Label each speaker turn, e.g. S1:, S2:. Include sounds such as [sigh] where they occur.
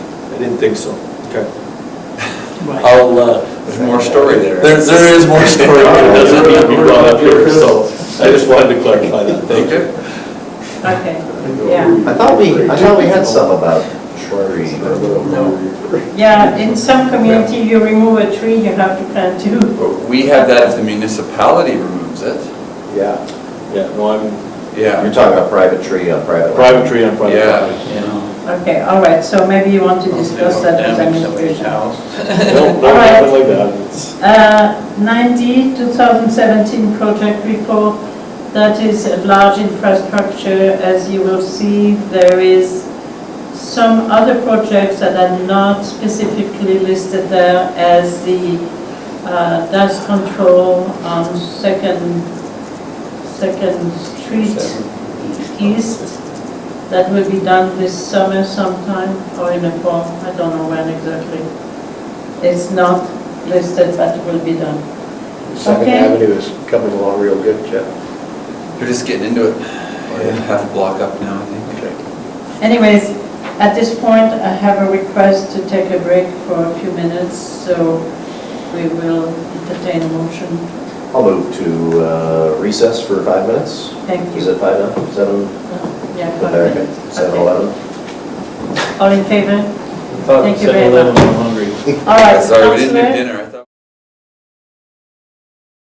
S1: didn't think so. Okay.
S2: Right.
S1: I'll, uh,
S3: There's more story there.
S1: there, there is [laughs]
S3: [laughs]
S1: more story. It doesn't need to be brought up here, so I just wanted to clarify that. Thank you.
S2: Okay, yeah.
S4: I thought we, I thought we had some about tree or little.
S2: Yeah, in some community, you remove a tree, you have to plant two.
S3: But We have that if the municipality removes it.
S4: Yeah.
S1: Yeah, no, I'm
S4: You're
S3: Yeah.
S4: talking about private tree on private. land.
S1: private tree on private
S3: Yeah.
S1: property.
S2: Okay, all right, so maybe you want to discuss that with
S5: Damage somebody's
S2: administration.
S5: house.
S1: No, no, nothing like that. It's-
S2: Uh, 90, 2017 project report, that is a large infrastructure. As you will see, there is some other projects that are not specifically listed there as the uh, dust control on Second, Second Street East. That will be done this summer sometime or in the fall, I don't know when exactly. It's not listed, but it will be done.
S6: Second
S2: Okay.
S6: Avenue is coming along real good, Jeff.
S3: They're just getting into it. We're Half a block up now, I think.
S2: Anyways, at this point, I have a request to take a break for a few minutes, so we will entertain a motion.
S4: I'll move to uh, recess for five minutes.
S2: Thank
S4: Is
S2: you.
S4: it five now? Seven?
S2: Yeah, five
S4: Okay.
S2: minutes.
S4: Seven,
S2: Okay.
S4: eleven?
S2: All in favor?
S1: Thought
S2: Thank you
S1: said
S2: very
S1: 11,
S2: much.
S1: I'm hungry.
S2: All right,
S3: Sorry, we didn't do
S2: Counselor?
S3: dinner.